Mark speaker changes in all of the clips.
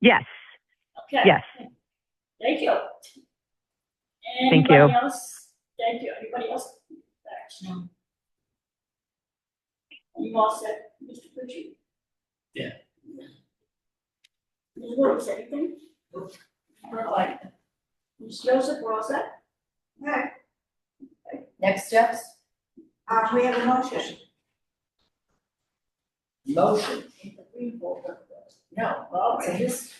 Speaker 1: Yes,
Speaker 2: Okay.
Speaker 1: yes.
Speaker 2: Thank you.
Speaker 1: Thank you.
Speaker 2: Anybody else? Thank you. Anybody else? No. You all said, Mr. Pritchard?
Speaker 3: Yeah.
Speaker 2: Ms. Woods, anything? All right. Ms. Joseph, we're all set?
Speaker 4: Okay,
Speaker 5: Next steps?
Speaker 4: uh, we have a motion.
Speaker 5: Motion. No,
Speaker 2: All
Speaker 5: so
Speaker 2: right.
Speaker 5: this,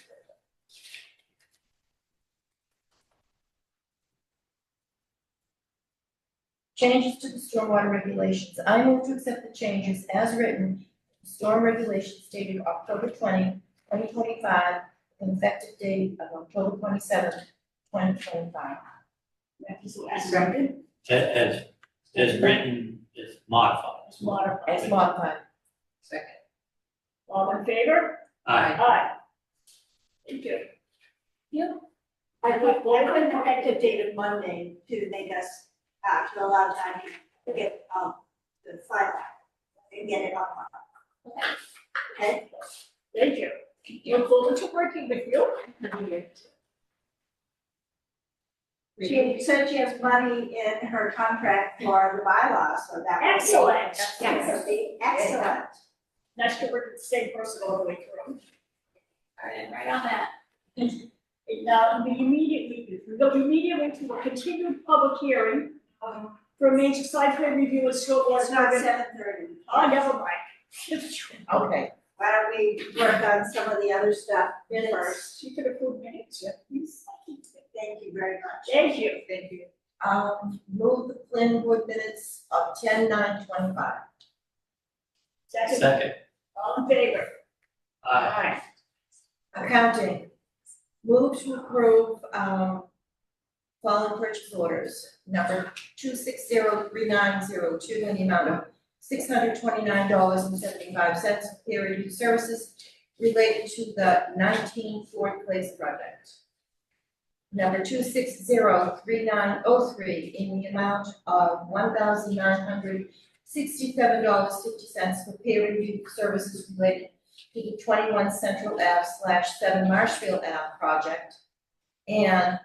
Speaker 5: changes to the stormwater regulations. I move to accept the changes as written, storm regulations dated October 20, 2025, and effective date of October twenty-seventh, twenty twenty-five.
Speaker 2: As written,
Speaker 3: As, as written, is modified.
Speaker 2: as modified.
Speaker 5: As modified. Second.
Speaker 2: All in favor?
Speaker 3: Aye.
Speaker 2: Aye. Thank you.
Speaker 4: I put, I put an effective date of Monday to make us, uh, to allow time to get, um, the file and get it up. Okay,
Speaker 2: Thank you. Look forward to working with you.
Speaker 4: she said she has money in her contract for the bylaw, so that would be.
Speaker 2: Excellent.
Speaker 4: That would be excellent.
Speaker 2: Nice to work with the same person all the way through.
Speaker 4: Right on that.
Speaker 2: And now we immediately, we go immediately to a continued public hearing um, for a major site plan review and scope
Speaker 4: It's
Speaker 2: was
Speaker 4: not
Speaker 2: not.
Speaker 4: seven thirty.
Speaker 2: Oh, never mind.
Speaker 5: Okay.
Speaker 4: Why don't we work on some of the other stuff first?
Speaker 2: Minutes, you can approve minutes, yeah, please.
Speaker 4: Thank you very much.
Speaker 2: Thank you.
Speaker 5: Thank you. Um, move the planning board minutes of ten nine twenty-five.
Speaker 2: Second,
Speaker 3: Second.
Speaker 2: all in favor?
Speaker 3: Aye.
Speaker 5: Accounting, move to approve, um, following purchase orders, number two six zero three nine zero two, in the amount of six hundred twenty-nine dollars and seventy-five cents, peer review services related to the nineteen Ford Place project. Number two six zero three nine oh three, in the amount of one thousand nine hundred sixty-seven dollars fifty cents for peer review services related to the twenty-one Central Ave slash seven Marshfield Ave project. And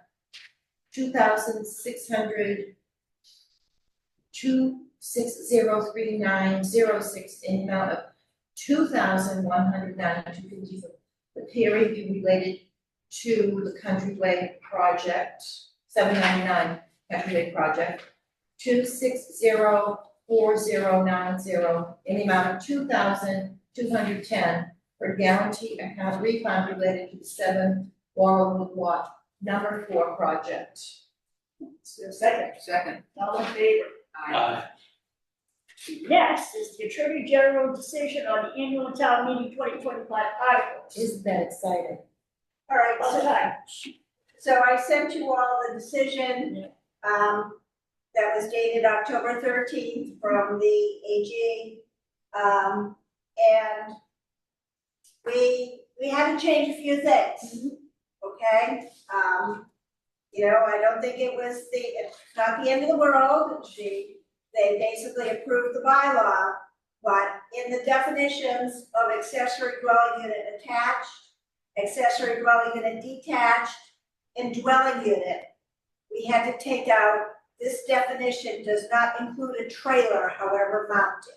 Speaker 5: two thousand six hundred two six zero three nine zero six in the amount of two thousand one hundred ninety-two fifty for the peer review related to the Countryway project, seven ninety-nine Countryway project. Two six zero four zero nine zero in the amount of two thousand two hundred ten for guarantee account refund related to the seven Laurelwood Lot number four project.
Speaker 2: Is there a second?
Speaker 5: Second.
Speaker 2: All in favor?
Speaker 3: Aye.
Speaker 2: Next is the Attorney General decision on the annual town meeting twenty twenty-five articles.
Speaker 5: Isn't that exciting?
Speaker 4: All right,
Speaker 2: Other
Speaker 4: so,
Speaker 2: time.
Speaker 4: so I sent you all the decision, um, that was dated October thirteenth from the AG. Um, and we, we had to change a few things, okay? Um, you know, I don't think it was the, it's not the end of the world, she, they basically approved the bylaw. But in the definitions of accessory dwelling unit attached, accessory dwelling unit detached, and dwelling unit, we had to take out, this definition does not include a trailer, however mounted.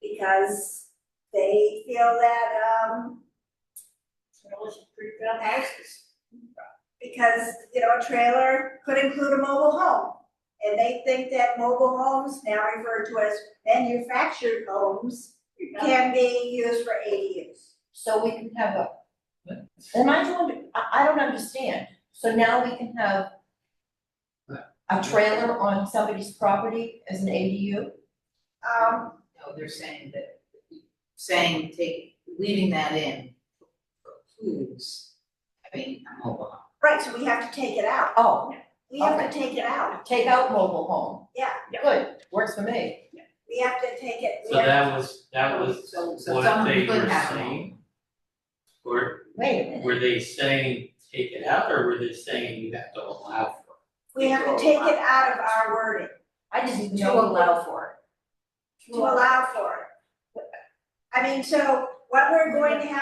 Speaker 4: Because they feel that, um,
Speaker 2: Trailers and pre-built houses.
Speaker 4: because, you know, a trailer could include a mobile home. And they think that mobile homes, now referred to as manufactured homes, can be used for ADUs.
Speaker 5: So we can have a. Am I doing, I, I don't understand. So now we can have a trailer on somebody's property as an ADU?
Speaker 4: Um,
Speaker 6: No, they're saying that, saying take, leaving that in precludes having a mobile home.
Speaker 4: right, so we have to take it out.
Speaker 5: Oh,
Speaker 4: We have to take it out.
Speaker 5: take out mobile home.
Speaker 4: Yeah,
Speaker 5: Good, works for me.
Speaker 4: we have to take it, we
Speaker 3: So
Speaker 4: have,
Speaker 3: that was, that was
Speaker 6: So, so
Speaker 3: what
Speaker 6: someone
Speaker 3: they
Speaker 6: could
Speaker 3: were
Speaker 6: have a home.
Speaker 3: saying? Or
Speaker 5: Wait a minute.
Speaker 3: were they saying take it out, or were they saying you have to allow for
Speaker 4: we have to take it out of our wording
Speaker 5: I just didn't
Speaker 6: To
Speaker 5: know.
Speaker 6: allow for
Speaker 4: to allow for it. I mean, so what we're going to have